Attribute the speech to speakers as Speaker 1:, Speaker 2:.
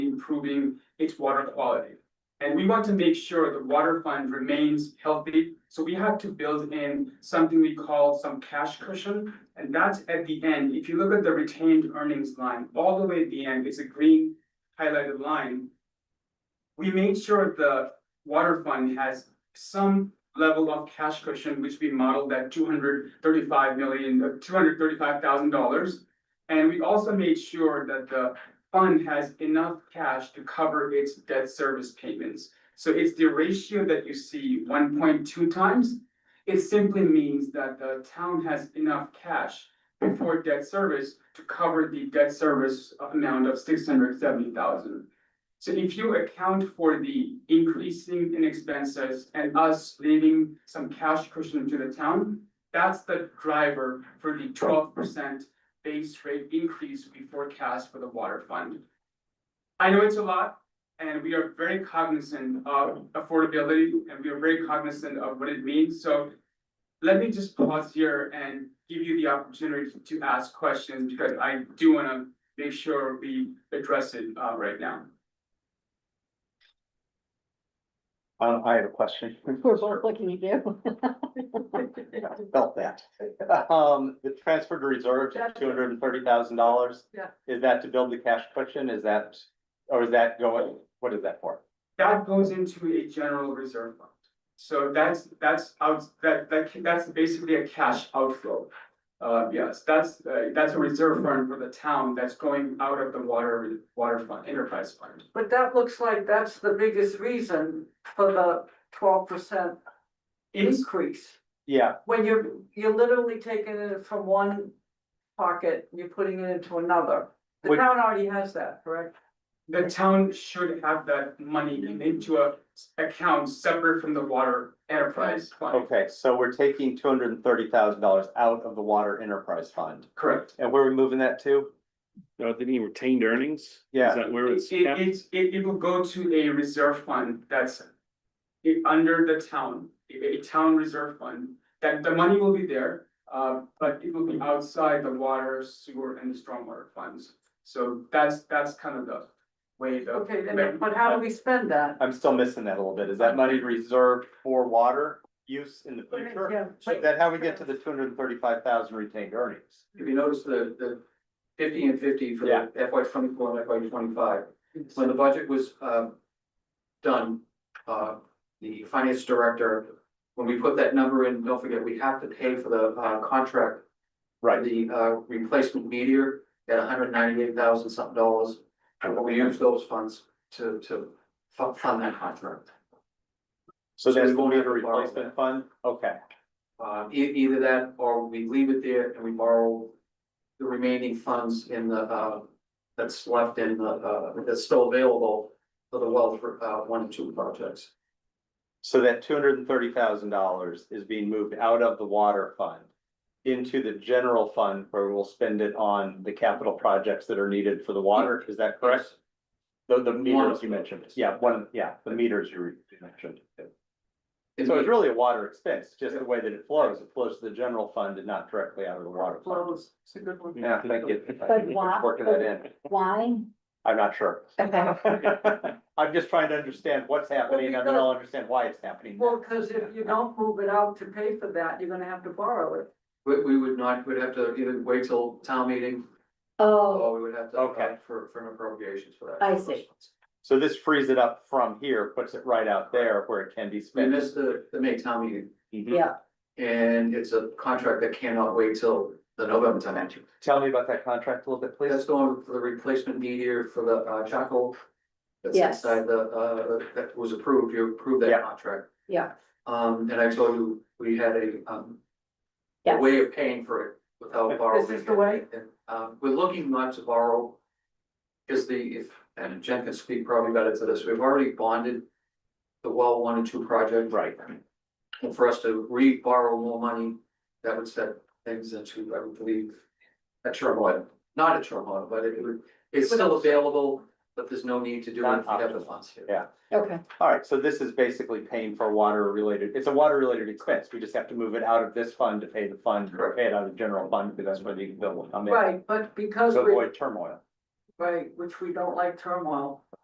Speaker 1: improving its water quality. And we want to make sure the water fund remains healthy, so we have to build in something we call some cash cushion. And that's at the end, if you look at the retained earnings line, all the way at the end, it's a green highlighted line. We made sure the water fund has some level of cash cushion, which we modeled at two hundred thirty-five million, uh, two hundred thirty-five thousand dollars. And we also made sure that the fund has enough cash to cover its debt service payments. So it's the ratio that you see, one point two times. It simply means that the town has enough cash before debt service to cover the debt service amount of six hundred seventy thousand. So if you account for the increasing in expenses and us leaving some cash cushion to the town, that's the driver for the twelve percent base rate increase we forecast for the water fund. I know it's a lot, and we are very cognizant of affordability, and we are very cognizant of what it means, so let me just pause here and give you the opportunity to ask questions, because I do wanna make sure we address it, uh, right now.
Speaker 2: Uh, I have a question.
Speaker 3: We're both looking at you.
Speaker 2: Felt that. Um, the transfer to reserves is two hundred and thirty thousand dollars.
Speaker 3: Yeah.
Speaker 2: Is that to build the cash cushion? Is that, or is that going, what is that for?
Speaker 1: That goes into a general reserve fund. So that's, that's out, that, that, that's basically a cash outflow. Uh, yes, that's, uh, that's a reserve fund for the town that's going out of the water, water fund, enterprise fund.
Speaker 4: But that looks like that's the biggest reason for the twelve percent
Speaker 1: It's,
Speaker 4: increase.
Speaker 2: Yeah,
Speaker 4: When you're, you're literally taking it from one pocket, and you're putting it into another. The
Speaker 2: Would-
Speaker 4: town already has that, correct?
Speaker 1: the town should have that money in- into a account separate from the water enterprise fund.
Speaker 2: okay, so we're taking two hundred and thirty thousand dollars out of the water enterprise fund.
Speaker 1: Correct.
Speaker 2: And where are we moving that to?
Speaker 5: No, they mean retained earnings?
Speaker 2: Yeah.
Speaker 5: Is that where
Speaker 1: It,
Speaker 5: it's
Speaker 1: it,
Speaker 5: kept?
Speaker 1: it's- it, it will go to a reserve fund that's i- under the town, a, a town reserve fund, that the money will be there, uh, but it will be outside the water, sewer, and stormwater funds. So that's, that's kind of the way the.
Speaker 4: Okay, then, but how do we spend that?
Speaker 2: I'm still missing that a little bit. Is that money reserved for water use in the future?
Speaker 4: Yeah.
Speaker 2: Is that how we get to the two hundred and thirty-five thousand retained earnings?
Speaker 6: If you notice the, the fifty and fifty for
Speaker 2: Yeah.
Speaker 6: the FY twenty-four and FY twenty-five, when the budget was, um done, uh, the finance director, when we put that number in, don't forget, we have to pay for the, uh, contract
Speaker 2: Right,
Speaker 6: the uh replacement meteor at hundred ninety-eight thousand something dollars. And we use those funds to to fu- fund that contract.
Speaker 2: so
Speaker 6: So we
Speaker 2: that's the
Speaker 6: won't have
Speaker 2: meter
Speaker 6: to borrow
Speaker 2: replacement
Speaker 6: that.
Speaker 2: fund? Okay.
Speaker 6: Uh, e- either that or we leave it there and we borrow the remaining funds in the uh that's left in the uh that's still available for the well for uh one and two projects.
Speaker 2: So that two hundred and thirty thousand dollars is being moved out of the water fund into the general fund where we'll spend it on the capital projects that are needed for the water, is that correct? The, the meters you mentioned, yeah, one, yeah, the meters you re- you mentioned. So it's really a water expense, just the way that it flows, it flows to the general fund and not directly out of the water fund.
Speaker 4: Flows, it's a good one.
Speaker 2: Yeah, thank you.
Speaker 3: But why-
Speaker 2: Working that in,
Speaker 3: Why?
Speaker 2: I'm not sure. I'm just trying to understand what's happening and then I'll understand why it's happening.
Speaker 4: Well, cause if you don't move it out to pay for that, you're gonna have to borrow it.
Speaker 6: We we would not, we'd have to either wait till town meeting
Speaker 3: Oh,
Speaker 6: or we would have to
Speaker 2: Okay.
Speaker 6: apply for for an appropriations for that.
Speaker 3: I see.
Speaker 2: So this frees it up from here, puts it right out there where it can be
Speaker 6: We
Speaker 2: spent. Mm-hmm.
Speaker 6: missed the the May town meeting.
Speaker 5: Mhm.
Speaker 3: yeah,
Speaker 6: And it's a contract that cannot wait till the November time. entry.
Speaker 2: Tell me about that contract a little bit, please.
Speaker 6: That's going for the replacement meteor for the uh Chaco. That's
Speaker 3: Yes.
Speaker 6: inside the uh that was approved, you approved
Speaker 2: Yeah.
Speaker 6: that contract.
Speaker 3: Yeah.
Speaker 6: Um, and I told you, we had a um. A
Speaker 3: Yes.
Speaker 6: way of paying for it without borrowing.
Speaker 4: This is the way?
Speaker 6: And um, we're looking not to borrow. Cause the, if, and Jen can speak probably better to this, we've already bonded. The well one and two project.
Speaker 2: Right.
Speaker 6: And for us to re-borrow more money, that would set things into, I would believe, a turmoil, not a turmoil, but it would, it's still available, but there's no need to do it if you have the funds here.
Speaker 2: Yeah.
Speaker 3: okay,
Speaker 2: All right, so this is basically paying for water related, it's a water related expense. We just have to move it out of this fund to pay the fund, or pay it out of the general fund, because that's where the bill will come in.
Speaker 4: Right, but because
Speaker 2: To
Speaker 4: we,
Speaker 2: avoid turmoil.
Speaker 4: right, which we don't like turmoil,